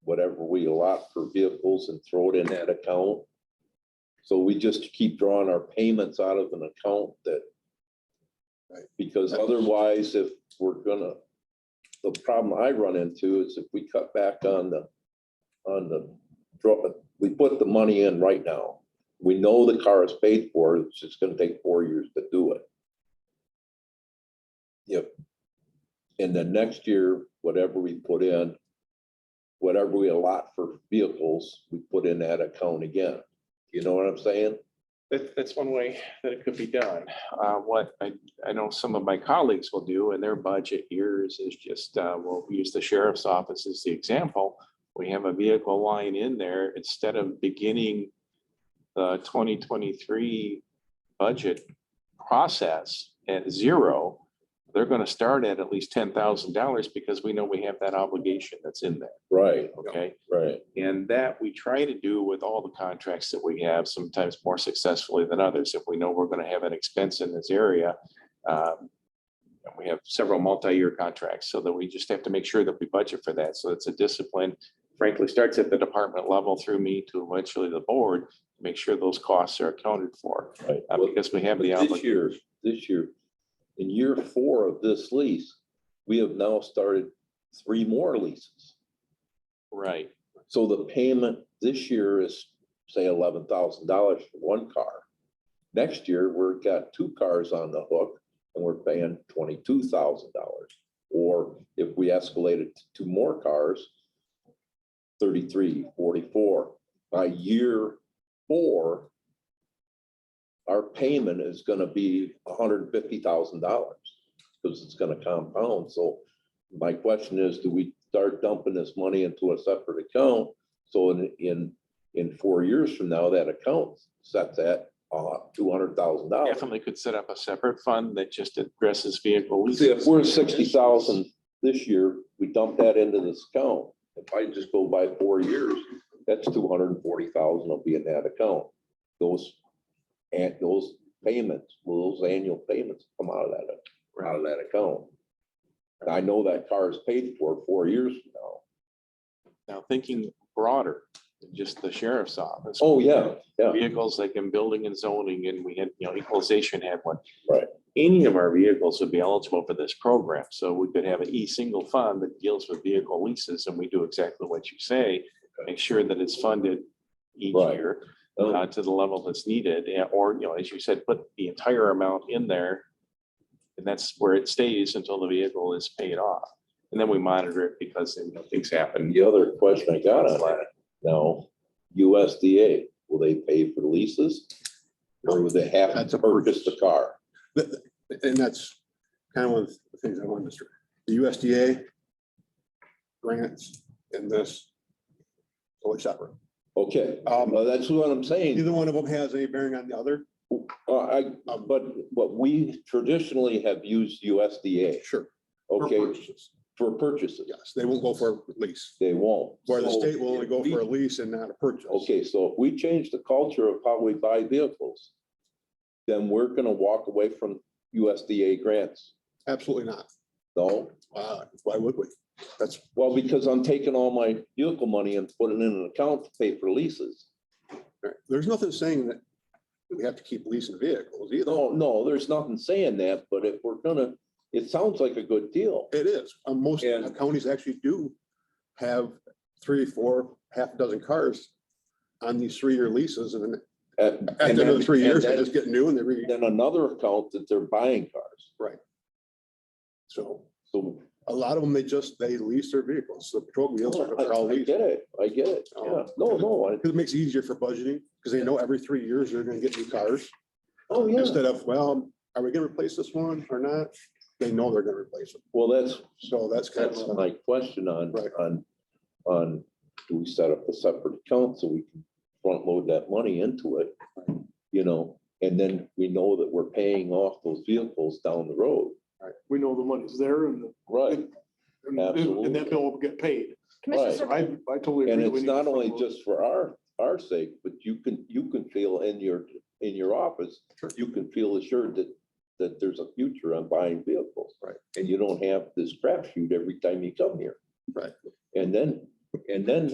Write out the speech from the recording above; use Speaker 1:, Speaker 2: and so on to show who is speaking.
Speaker 1: whatever we allot for vehicles and throw it in that account. So we just keep drawing our payments out of an account that.
Speaker 2: Right.
Speaker 1: Because otherwise, if we're gonna, the problem I run into is if we cut back on the, on the, draw, we put the money in right now. We know the car is paid for, it's just gonna take four years to do it. If, and then next year, whatever we put in, whatever we allot for vehicles, we put in that account again. You know what I'm saying?
Speaker 3: That, that's one way that it could be done. Uh, what I, I know some of my colleagues will do in their budget years is just, uh, well, we use the sheriff's office as the example. We have a vehicle line in there instead of beginning the twenty twenty-three budget process at zero. They're gonna start at at least ten thousand dollars because we know we have that obligation that's in there,
Speaker 1: Right,
Speaker 3: okay?
Speaker 1: right.
Speaker 3: And that we try to do with all the contracts that we have, sometimes more successfully than others. If we know we're going to have an expense in this area, um, and we have several multi-year contracts, so that we just have to make sure that we budget for that. So it's a discipline, frankly, starts at the department level through me to eventually the board, to make sure those costs are accounted for,
Speaker 1: Right.
Speaker 3: uh, because we have the
Speaker 1: But This
Speaker 3: obligation.
Speaker 1: year, this year, in year four of this lease, we have now started three more leases.
Speaker 3: Right,
Speaker 1: So the payment this year is, say, eleven thousand dollars for one car. Next year, we've got two cars on the hook and we're paying twenty-two thousand dollars. Or if we escalate it to two more cars, 33, 44. by year four, our payment is gonna be hundred and fifty thousand dollars, because it's gonna compound, so my question is, do we start dumping this money into a separate account? So in, in, in four years from now, that account sets at, uh, two hundred thousand dollars.
Speaker 3: definitely could set up a separate fund that just addresses vehicle
Speaker 1: See,
Speaker 3: leases.
Speaker 1: if we're sixty thousand this year, we dump that into this account. If I just go by four years, that's two hundred and forty thousand will be in that account. Those, and those payments, those annual payments come out of that, out of that account. And I know that car is paid for four years from now.
Speaker 3: Now, thinking broader, than just the sheriff's office.
Speaker 1: Oh, yeah, yeah,
Speaker 3: vehicles like in building and zoning and we had, you know, equalization had one.
Speaker 1: Right.
Speaker 3: Any of our vehicles would be eligible for this program. So we could have an e-single fund that deals with vehicle leases and we do exactly what you say. Make sure that it's funded each
Speaker 1: Right.
Speaker 3: year
Speaker 1: Oh,
Speaker 3: uh, to the level that's needed and- or, you know, as you said, put the entire amount in there. And that's where it stays until the vehicle is paid off. And then we monitor it because you know, things happen.
Speaker 1: the other question I got on that, now, USDA, will they pay for leases? Or would they have
Speaker 2: That's
Speaker 1: to
Speaker 2: a
Speaker 1: purchase the car?
Speaker 2: And that's kind of one of the things I wanted to, stress. the USDA grants and this totally separate.
Speaker 1: Okay,
Speaker 2: Um,
Speaker 1: well, that's what I'm saying.
Speaker 2: Neither one of them has any bearing on the other.
Speaker 1: Uh, I, but, but we traditionally have used USDA,
Speaker 2: Sure. for
Speaker 1: okay,
Speaker 2: purchases.
Speaker 1: for purchases.
Speaker 2: Yes, they won't go for a lease,
Speaker 1: They won't.
Speaker 2: where the
Speaker 1: So
Speaker 2: state will only go for a lease and not a purchase.
Speaker 1: Okay, so if we change the culture of how we buy vehicles, then we're gonna walk away from USDA grants.
Speaker 2: Absolutely not.
Speaker 1: No,
Speaker 2: Uh, Why would we? That's,
Speaker 1: well, because I'm taking all my vehicle money and putting it in an account to pay for leases.
Speaker 2: there's nothing saying that we have to keep leasing vehicles either.
Speaker 1: No, no, there's nothing saying that, but if we're gonna, it sounds like a good deal.
Speaker 2: It is. Uh, Most
Speaker 1: And-
Speaker 2: counties actually do have three, four, half a dozen cars on these three-year leases and then
Speaker 1: And-
Speaker 2: at
Speaker 1: and
Speaker 2: the end of the
Speaker 1: then-
Speaker 2: three
Speaker 1: and
Speaker 2: years, they
Speaker 1: then-
Speaker 2: just get new and they re,
Speaker 1: Then another account that they're buying cars.
Speaker 2: so
Speaker 1: So
Speaker 2: a lot of them, they just, they lease their vehicles. The patrol
Speaker 1: I
Speaker 2: wheels are Oh, all
Speaker 1: Oh,
Speaker 2: Oh.
Speaker 1: I
Speaker 2: leased.
Speaker 1: get it, I get it, yeah, no, no, I,
Speaker 2: 'Cause It makes it easier for budgeting because they know every three years they're gonna get new cars.
Speaker 1: oh, yeah,
Speaker 2: Instead of, well, are we gonna replace this one or not? They know they're gonna replace it.
Speaker 1: well, that's,
Speaker 2: So that's kind
Speaker 1: that's
Speaker 2: of,
Speaker 1: my question on,
Speaker 2: Right.
Speaker 1: on, on, do we set up a separate account so we can front load that money into it? You know, and then we know that we're paying off those vehicles down the road.
Speaker 4: we know the money's there and, the-
Speaker 1: Right.
Speaker 4: and and that bill will get paid.
Speaker 1: Right.
Speaker 4: I, I totally agree.
Speaker 1: And
Speaker 4: that we
Speaker 1: it's
Speaker 4: need to
Speaker 1: not only
Speaker 4: front load.
Speaker 1: just for our, our sake, but you can, you can feel in your, in your office, you can feel assured that, that there's a future on buying vehicles.
Speaker 2: Right.
Speaker 1: And you don't have this crapshoot every time you come here.
Speaker 2: Right.
Speaker 1: And then, and then